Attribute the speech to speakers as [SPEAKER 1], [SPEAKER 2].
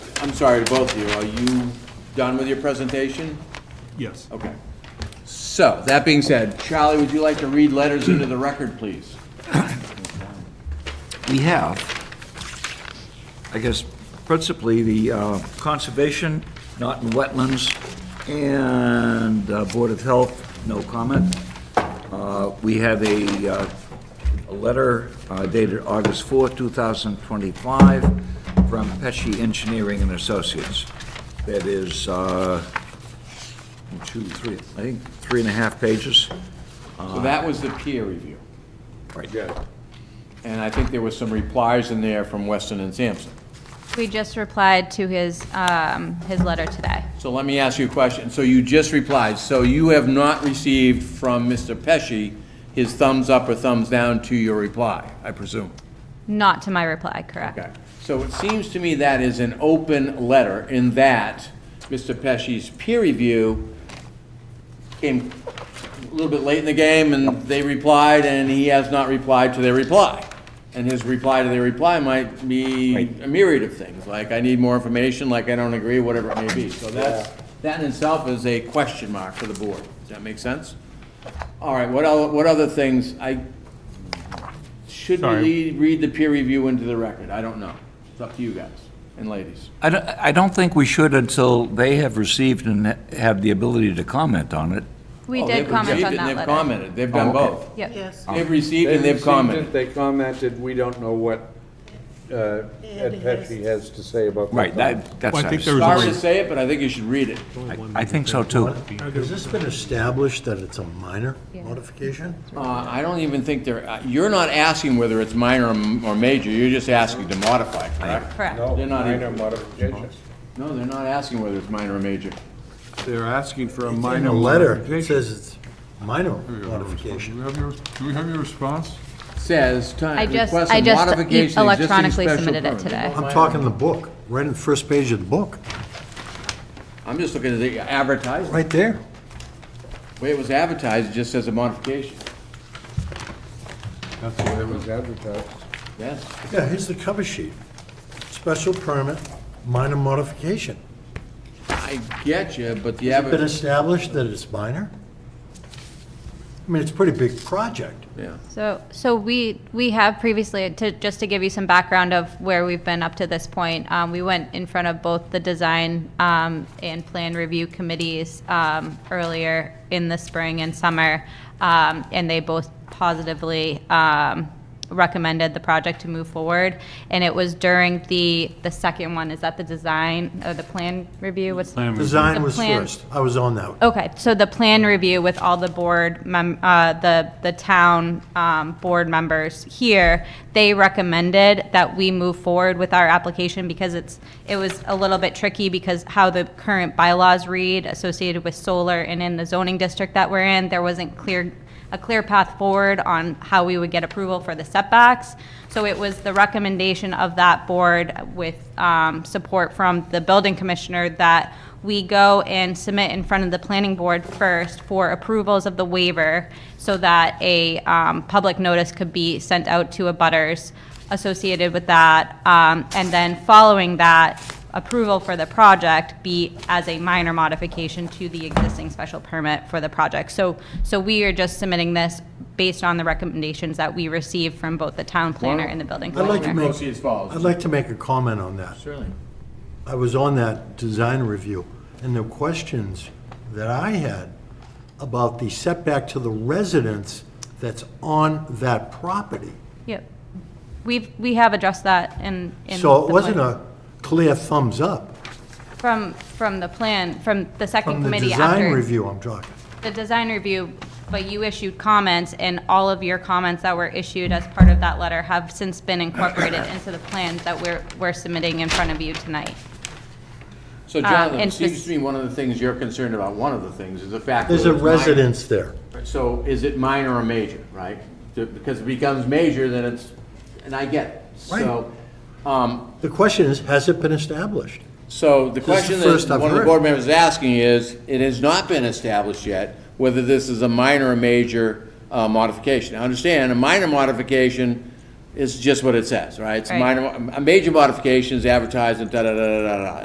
[SPEAKER 1] I'm sorry to both of you, are you done with your presentation?
[SPEAKER 2] Yes.
[SPEAKER 1] Okay. So, that being said, Charlie, would you like to read letters into the record, please?
[SPEAKER 3] we have, I guess principally the uh, Conservation, Norton Wetlands, and uh, Board of Health, no comment. Uh, We have a, uh, a letter uh, dated August 4, 2025, from Pesci Engineering and Associates. That is, uh, two, three, I think, three and a half pages.
[SPEAKER 1] So that was the peer review.
[SPEAKER 3] Right.
[SPEAKER 1] And I think there were some replies in there from Weston and Sampson.
[SPEAKER 4] We just replied to his, um, his letter today.
[SPEAKER 1] So let me ask you a question. So you just replied, so you have not received from Mr. Pesci his thumbs up or thumbs down to your reply, I presume?
[SPEAKER 4] Not to my reply, correct?
[SPEAKER 1] Okay. So it seems to me that is an open letter in that Mr. Pesci's peer review came a little bit late in the game and they replied and he has not replied to their reply. And his reply to their reply might be a myriad of things, like I need more information, like I don't agree, whatever it may be. So that's, that in itself is a question mark for the board. Does that make sense? All right, what el what other things, I, should we
[SPEAKER 2] Sorry.
[SPEAKER 1] lead- read the peer review into the record? I don't know. It's up to you guys and ladies.
[SPEAKER 3] I don't, I don't think we should until they have received and have the ability to comment on it.
[SPEAKER 4] We
[SPEAKER 1] Oh,
[SPEAKER 4] did
[SPEAKER 1] they've
[SPEAKER 4] comment
[SPEAKER 1] received
[SPEAKER 4] on
[SPEAKER 1] it and
[SPEAKER 4] that
[SPEAKER 1] They've
[SPEAKER 4] letter.
[SPEAKER 1] commented, they've done
[SPEAKER 3] Oh, okay.
[SPEAKER 1] both.
[SPEAKER 4] Yep,
[SPEAKER 5] Yes,
[SPEAKER 1] They've received and they've
[SPEAKER 6] received it,
[SPEAKER 1] commented.
[SPEAKER 6] They commented, we don't know what uh, Ed Pesci has to say about the
[SPEAKER 3] Right,
[SPEAKER 6] fund."
[SPEAKER 3] that, that's.
[SPEAKER 2] Well, I think there was
[SPEAKER 1] Sorry to
[SPEAKER 2] only,
[SPEAKER 1] say it, but I think you should read it.
[SPEAKER 3] I think so too.
[SPEAKER 7] Has this been established that it's a minor modification?
[SPEAKER 1] Uh, I don't even think they're, uh, you're not asking whether it's minor or m- or major, you're just asking to modify, correct?
[SPEAKER 4] correct.
[SPEAKER 6] No,
[SPEAKER 1] They're not
[SPEAKER 6] minor
[SPEAKER 1] even-
[SPEAKER 6] modifications.
[SPEAKER 1] No, they're not asking whether it's minor or major.
[SPEAKER 2] they're asking for a
[SPEAKER 7] It's
[SPEAKER 2] minor.
[SPEAKER 7] In the letter, it
[SPEAKER 2] modification.
[SPEAKER 7] says it's minor
[SPEAKER 2] Do
[SPEAKER 7] modification.
[SPEAKER 2] we have your, do we have your response?
[SPEAKER 1] Says, time,
[SPEAKER 4] I just,
[SPEAKER 1] request
[SPEAKER 4] I
[SPEAKER 1] a
[SPEAKER 4] just
[SPEAKER 1] modification.
[SPEAKER 4] e-
[SPEAKER 1] of existing
[SPEAKER 4] electronically
[SPEAKER 1] special
[SPEAKER 4] submitted it
[SPEAKER 1] permit.
[SPEAKER 4] today.
[SPEAKER 7] I'm talking the book, right in the first page of the book,
[SPEAKER 1] I'm just looking at the advertisement.
[SPEAKER 7] right there.
[SPEAKER 1] The way it was advertised, it just says a modification.
[SPEAKER 2] That's the way it
[SPEAKER 6] It
[SPEAKER 2] was.
[SPEAKER 6] was advertised.
[SPEAKER 1] Yes.
[SPEAKER 7] Yeah, here's the cover sheet. Special permit, minor modification.
[SPEAKER 1] I get you, but the
[SPEAKER 7] Has it been
[SPEAKER 1] adver,
[SPEAKER 7] established that it's minor? I mean, it's a pretty big project.
[SPEAKER 2] Mm-hmm.
[SPEAKER 1] yeah.
[SPEAKER 4] So, so we, we have previously, to, just to give you some background of where we've been up to this point, um, we went in front of both the design, um, and plan review committees, um, earlier in the spring and summer, um, and they both positively, um, recommended the project to move forward. And it was during the, the second one, is that the design, or the plan review? What's,
[SPEAKER 7] Design
[SPEAKER 4] The
[SPEAKER 7] was
[SPEAKER 4] plan-
[SPEAKER 7] first. I was on that.
[SPEAKER 4] Okay, so the plan review with all the board mem, uh, the, the town, um, board members here, they recommended that we move forward with our application because it's, it was a little bit tricky because how the current bylaws read associated with solar and in the zoning district that we're in, there wasn't clear, a clear path forward on how we would get approval for the setbacks. So it was the recommendation of that board with um, support from the building commissioner that we go and submit in front of the planning board first for approvals of the waiver so that a um, public notice could be sent out to abutters associated with that. um, And then following that, approval for the project be as a minor modification to the existing special permit for the project. So, so we are just submitting this based on the recommendations that we received from both the town planner and the building
[SPEAKER 7] I'd like to
[SPEAKER 4] commissioner.
[SPEAKER 7] make,
[SPEAKER 1] Proceed as follows.
[SPEAKER 7] I'd like to make a comment on that.
[SPEAKER 1] Certainly.
[SPEAKER 7] I was on that design review, and the questions that I had about the setback to the residence that's on that property.
[SPEAKER 4] Yep. We've, we have addressed that in, in.
[SPEAKER 7] So it
[SPEAKER 4] the
[SPEAKER 7] wasn't
[SPEAKER 4] plan.
[SPEAKER 7] a clear thumbs up
[SPEAKER 4] From, from the plan, from the second
[SPEAKER 7] from the
[SPEAKER 4] committee
[SPEAKER 7] design
[SPEAKER 4] after.
[SPEAKER 7] review I'm talking.
[SPEAKER 4] The design review, but you issued comments and all of your comments that were issued as part of that letter have since been incorporated into the plans that we're, we're submitting in front of you tonight.
[SPEAKER 1] So Jonathan, it
[SPEAKER 4] Uh, and
[SPEAKER 1] seems
[SPEAKER 4] spec-
[SPEAKER 1] to me one of the things you're concerned about, one of the things, is the fact.
[SPEAKER 7] There's
[SPEAKER 1] that
[SPEAKER 7] a
[SPEAKER 1] it's minor.
[SPEAKER 7] residence there.
[SPEAKER 1] So is it minor or major, right? The- Because it becomes major, then it's, and I get it. So, um,
[SPEAKER 7] The question is, has it been established?
[SPEAKER 1] so the
[SPEAKER 7] the
[SPEAKER 1] question
[SPEAKER 7] first
[SPEAKER 1] that
[SPEAKER 7] I've
[SPEAKER 1] one of the
[SPEAKER 7] heard.
[SPEAKER 1] board members is asking is, it has not been established yet whether this is a minor or major uh, modification. Now, understand, a minor modification is just what it says, right? It's a
[SPEAKER 4] Right.
[SPEAKER 1] minor, a major modification is advertised and da-da-da-da-da-da.